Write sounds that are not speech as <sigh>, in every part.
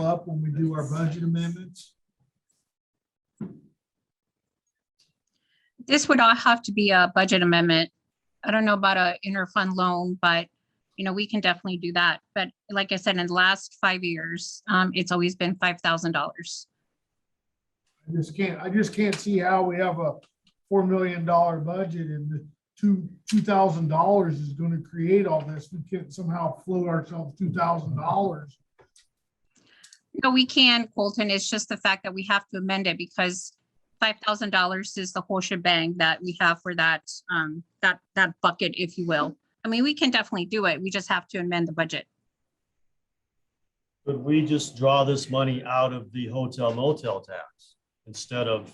up when we do our budget amendments? This would all have to be a budget amendment. I don't know about a interfund loan, but, you know, we can definitely do that. But like I said, in the last five years, um, it's always been five thousand dollars. I just can't, I just can't see how we have a four million dollar budget and the two, two thousand dollars is gonna create all this. We can't somehow float ourselves two thousand dollars. No, we can, Colton. It's just the fact that we have to amend it because five thousand dollars is the whole shebang that we have for that, um, that, that bucket, if you will. I mean, we can definitely do it. We just have to amend the budget. Could we just draw this money out of the hotel motel tax instead of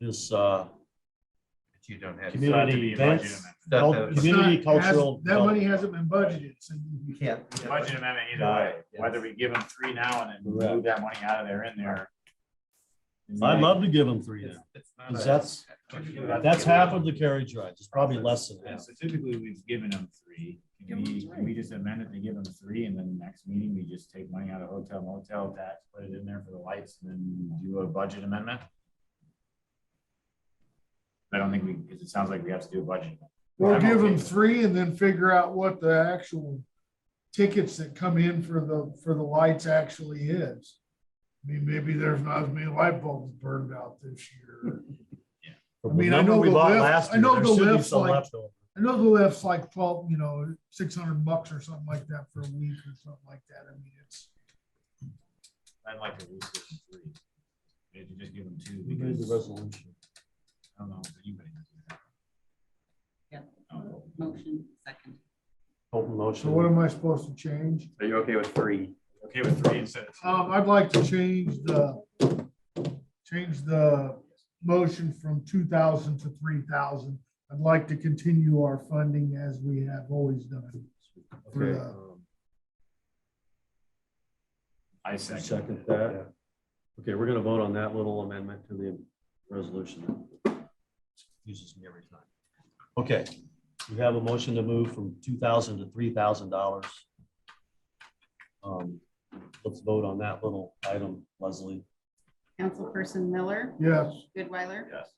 this uh, But you don't have. It's not to community be a budget events? amendment. That- Well, that- It's Community not- has- cultural That money development. hasn't been budgeted, so You you can't. The Budget amendment either way, Right, yes. whether we give them three now and then move that money out of there in there. I'd love to give them three It's- now, it's not because a- that's, that's half of the carriage ride, it's probably less than Yeah, half. so typically we've given them three. Can Give 'em we, can we just amend it to give them three and then the next meeting, we just take money out of hotel motel tax, put it in there for the lights and then do a budget amendment? I don't think we, because it sounds like we have to do a budget. We'll I'm give okay them with it. three and then figure out what the actual tickets that come in for the, for the lights actually is. I mean, maybe there's not as many light bulbs burned out this year. I mean, I Remember know we the bought lift- last I year, know there the should be lift's some like- left over. I know the lift's like twelve, you know, six hundred bucks or something like that for a week or something like that. I mean, it's. I'd like to reduce it to three. Maybe just give them two We made the because, resolution. I don't know, if anybody. can do that. Yeah. Oh, Motion second. Open So what motion. am I supposed to change? Are you okay with three? Okay with three instead of two. Um, I'd like to change the, change the motion from two thousand to three thousand. I'd like to continue our funding as we have always done. for Okay. the- I second. Second that. Okay, we're gonna vote on that little amendment to the resolution. Uses me every time. Okay, we have a motion to move from two thousand to three thousand dollars. Um, Let's vote on that little item, Leslie. Councilperson Miller, Yes, Goodweiler, Yes.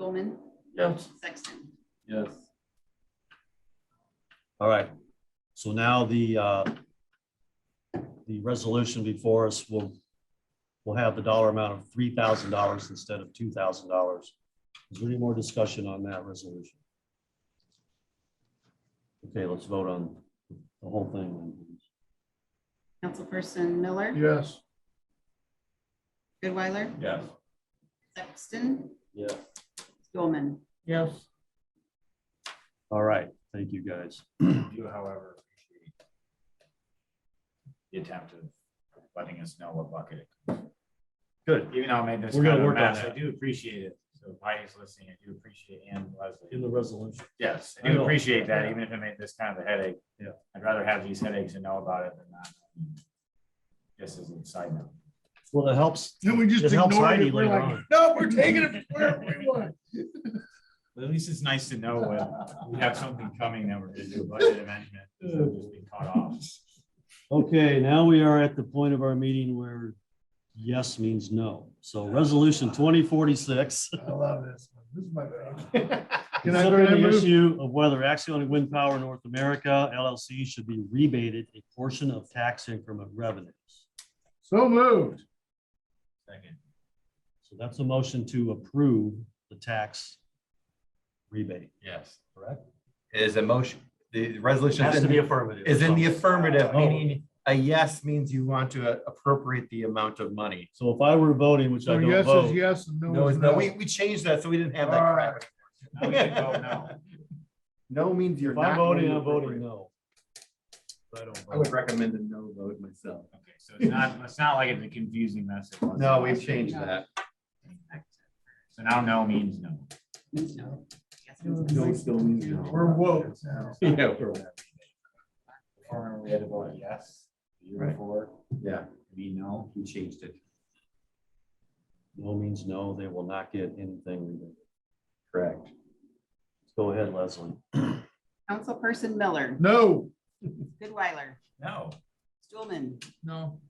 Stulman, Yes. Sexton. Yes. All right, so now the, uh, the resolution before us will, will have the dollar amount of three thousand dollars instead of two thousand dollars. Is there any more discussion on that resolution? Okay, let's vote on the whole thing. Councilperson Miller, yes. Goodweiler, Yes. Sexton, Yeah. Stulman. Yes. All right, thank you, guys. do however appreciate the attempt of letting us know what bucket it. Good. Even though I made this We're gonna kind of a work on mess, I that. do appreciate it. So if Heidi's listening, I do appreciate and Leslie. In the resolution. Yes, I I know. do appreciate that, even if it made this kind of a headache. Yeah. I'd rather have these headaches and know about it than not. Just as an side note. Well, it helps. Then we just It helps ignored Heidi it. We're later like, on. no, we're taking it wherever we want. But At least it's nice to know when we have something coming that we're gonna do a budget amendment, instead of just being caught off. Okay, now we are at the point of our meeting where yes means no. So resolution twenty forty-six. I love this. one. This is my favorite. Can I- can I Considering the move- issue of whether Axion Wind Power North America LLC should be rebated a portion of tax increment revenues. So moved. Second. So that's a motion to approve the tax rebate, Yes. correct? It Is a motion, the resolution Has is to be in, affirmative. is in the affirmative, Oh. meaning a yes means you want to uh, appropriate the amount of money. So if I were voting, which I So don't yes is vote, yes and No, no is it's- no, no. we, we changed that, so we didn't have that All crap. Now we can <laughs> vote now. No means you're if not. I'm going voting, to I'm voting appropriate. no. I don't I would vote. recommend a no vote myself. oh, Okay, so it's not, it's not like it's a confusing mess. it was No, last we've year. changed that. So now no means no. No. Yes, No still means no. We're woke now. <laughs> <laughs> Yeah, we're- Former, we had to vote yes, the year Right. before, yeah, me no. we changed it, No means no, they will not get anything rebated. correct. Go ahead, Leslie. Councilperson Miller, No. Goodweiler, No. Stulman, No.